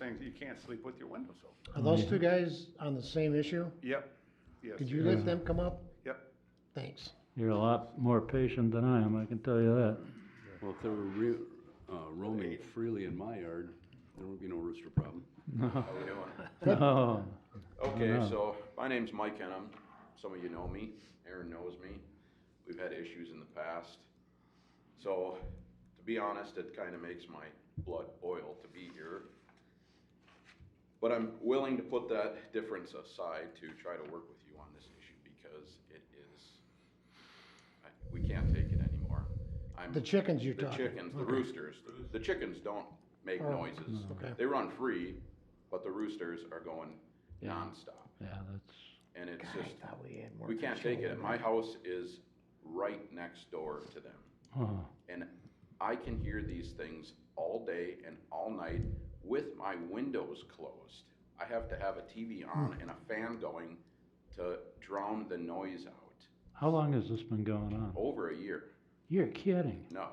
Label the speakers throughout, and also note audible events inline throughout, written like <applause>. Speaker 1: things, you can't sleep with your windows open.
Speaker 2: Are those two guys on the same issue?
Speaker 1: Yep, yes.
Speaker 2: Could you
Speaker 1: yes.
Speaker 2: let them come up?
Speaker 1: Yep,
Speaker 2: Thanks.
Speaker 3: You're a lot more patient than I am, I can tell you
Speaker 4: <laughs>
Speaker 3: that.
Speaker 5: Well, if they were re- uh, roaming freely in my yard, there would be no rooster problem.
Speaker 4: How we
Speaker 2: <laughs>
Speaker 4: doing?
Speaker 3: No,
Speaker 4: Okay, so my name's Mike Henham. Some of you know me. Aaron knows me. We've had issues in the past. So, to be honest, it kind of makes my blood boil to be here. But I'm willing to put that difference aside to try to work with you on this issue because it is, I- we can't take it anymore. I'm-
Speaker 2: The chickens you're
Speaker 4: the
Speaker 2: talking.
Speaker 4: chickens, the roosters, the chickens don't make
Speaker 2: Oh,
Speaker 4: noises.
Speaker 2: okay.
Speaker 4: They run free, but the roosters are going nonstop.
Speaker 3: yeah, that's,
Speaker 4: And it's
Speaker 2: God, I
Speaker 4: just,
Speaker 2: thought we had more
Speaker 4: we can't take
Speaker 2: control.
Speaker 4: it. My house is right next door to them.
Speaker 3: oh,
Speaker 4: And I can hear these things all day and all night with my windows closed. I have to have a TV on and a fan going to drown the noise out.
Speaker 3: how long has this been going on?
Speaker 4: Over a year,
Speaker 3: You're kidding.
Speaker 4: no.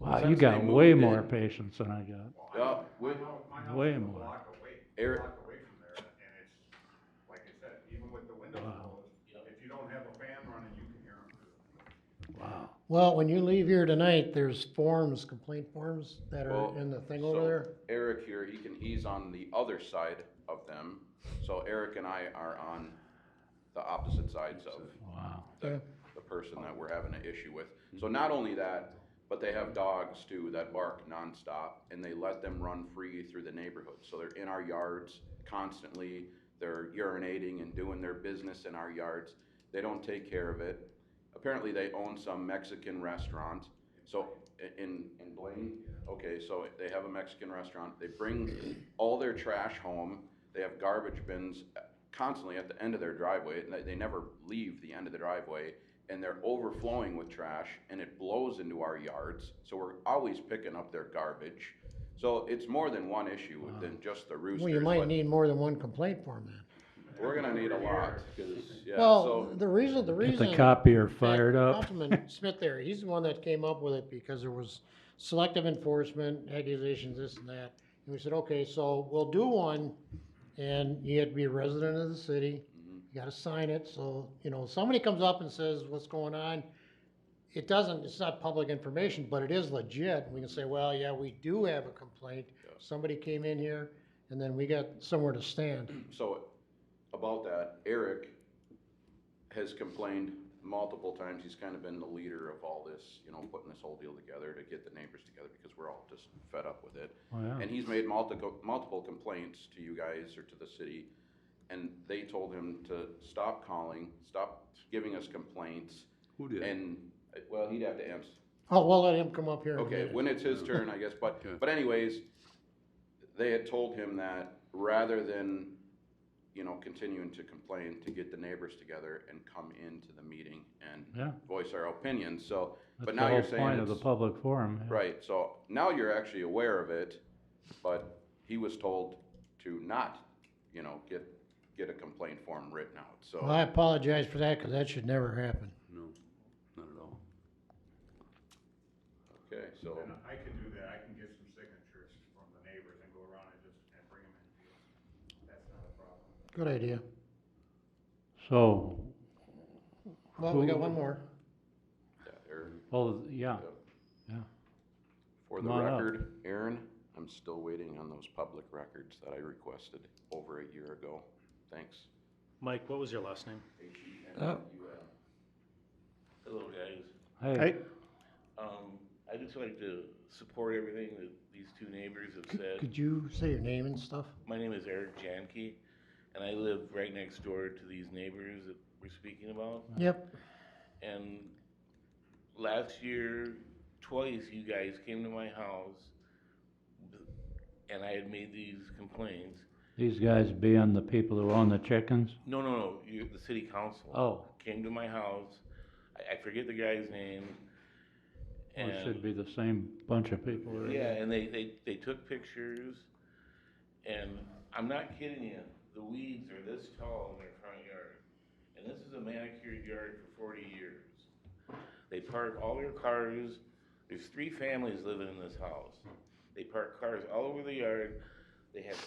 Speaker 3: Wow, you
Speaker 4: Since
Speaker 3: got
Speaker 4: they
Speaker 3: way
Speaker 4: moved
Speaker 3: more
Speaker 4: in.
Speaker 3: patience than I got.
Speaker 4: Yeah, we-
Speaker 3: Way more.
Speaker 1: block away,
Speaker 4: Eric-
Speaker 1: block away from there, and it's, like I said, even with the windows
Speaker 3: Wow.
Speaker 1: closed, if you don't have a fan running, you can hear them.
Speaker 3: Wow.
Speaker 2: Well, when you leave here tonight, there's forms, complaint forms that
Speaker 4: Well,
Speaker 2: are in the thing
Speaker 4: so
Speaker 2: over there.
Speaker 4: Eric here, he can, he's on the other side of them, so Eric and I are on the opposite sides of
Speaker 3: Wow.
Speaker 4: the, the person that we're having an issue with. So not only that, but they have dogs too that bark nonstop, and they let them run free through the neighborhood, so they're in our yards constantly, they're urinating and doing their business in our yards, they don't take care of it. Apparently, they own some Mexican restaurant, so, i- in, in Blaine? Okay, so they have a Mexican restaurant, they bring all their trash home, they have garbage bins uh, constantly at the end of their driveway, and they, they never leave the end of the driveway, and they're overflowing with trash, and it blows into our yards, so we're always picking up their garbage. So it's more than one issue than just the roosters,
Speaker 2: Well, you might
Speaker 4: but
Speaker 2: need more than one complaint form then.
Speaker 4: we're gonna need a lot, 'cause, yeah,
Speaker 2: Well,
Speaker 4: so,
Speaker 2: the reason, the
Speaker 3: Get
Speaker 2: reason.
Speaker 3: the copier fired
Speaker 2: that
Speaker 3: up. <laughs>
Speaker 2: Councilman Smith there, he's the one that came up with it because there was selective enforcement, accusations, this and that. And we said, okay, so we'll do one, and you have to be a resident of the city,
Speaker 4: Mm-hmm.
Speaker 2: you gotta sign it, so, you know, somebody comes up and says, what's going on? It doesn't, it's not public information, but it is legit, we can say, well, yeah, we do have a complaint, somebody came in here, and then we got somewhere to stand.
Speaker 4: so about that, Eric has complained multiple times, he's kind of been the leader of all this, you know, putting this whole deal together to get the neighbors together, because we're all just fed up with it.
Speaker 3: Oh, yeah.
Speaker 4: And he's made multiple, multiple complaints to you guys or to the city, and they told him to stop calling, stop giving us complaints,
Speaker 5: Who did?
Speaker 4: and, uh, well, he'd have to answer.
Speaker 2: Oh, we'll let him come up here in a
Speaker 4: Okay,
Speaker 2: minute.
Speaker 4: when it's his turn, I guess, but,
Speaker 5: Okay.
Speaker 4: but anyways, they had told him that rather than, you know, continuing to complain, to get the neighbors together and come into the meeting and
Speaker 3: Yeah,
Speaker 4: voice our opinions, so, but
Speaker 3: that's the
Speaker 4: now you're
Speaker 3: whole
Speaker 4: saying
Speaker 3: point of the
Speaker 4: it's-
Speaker 3: public forum. yeah.
Speaker 4: Right, so now you're actually aware of it, but he was told to not, you know, get, get a complaint form written out,
Speaker 2: Well, I
Speaker 4: so.
Speaker 2: apologize for that, cause that should never happen.
Speaker 5: No, not at all.
Speaker 4: Okay, so,
Speaker 1: And I can do that, I can get some signatures from the neighbors and go around and just, and bring them in. That's not a problem.
Speaker 2: Good idea.
Speaker 3: So,
Speaker 2: Well, we got
Speaker 3: Who-
Speaker 2: one more.
Speaker 4: yeah, Aaron,
Speaker 3: well, yeah,
Speaker 4: for the
Speaker 3: Come on up.
Speaker 4: record, Aaron, I'm still waiting on those public records that I requested over a year ago. Thanks.
Speaker 6: Mike, what was your last name?
Speaker 2: Uh,
Speaker 7: Hello, guys.
Speaker 3: hey,
Speaker 7: Um, I just like to support everything that these two neighbors have said.
Speaker 2: Could you say your name and stuff?
Speaker 7: My name is Eric Jankey, and I live right next door to these neighbors that we're speaking about.
Speaker 2: Yep.
Speaker 7: And last year, twice you guys came to my house, and I had made these complaints.
Speaker 3: these guys being the people who own the chickens?
Speaker 7: No, no, no, you, the city council.
Speaker 3: Oh,
Speaker 7: Came to my house, I, I forget the guy's name.
Speaker 3: well, Oh, it
Speaker 7: and-
Speaker 3: should be the same bunch of people. right?
Speaker 7: Yeah, and they, they, they took pictures, and I'm not kidding you, the weeds are this tall in their front yard. And this is a manicured yard for forty years. They park all their cars, there's three families living in this house. They park cars all over the yard, they have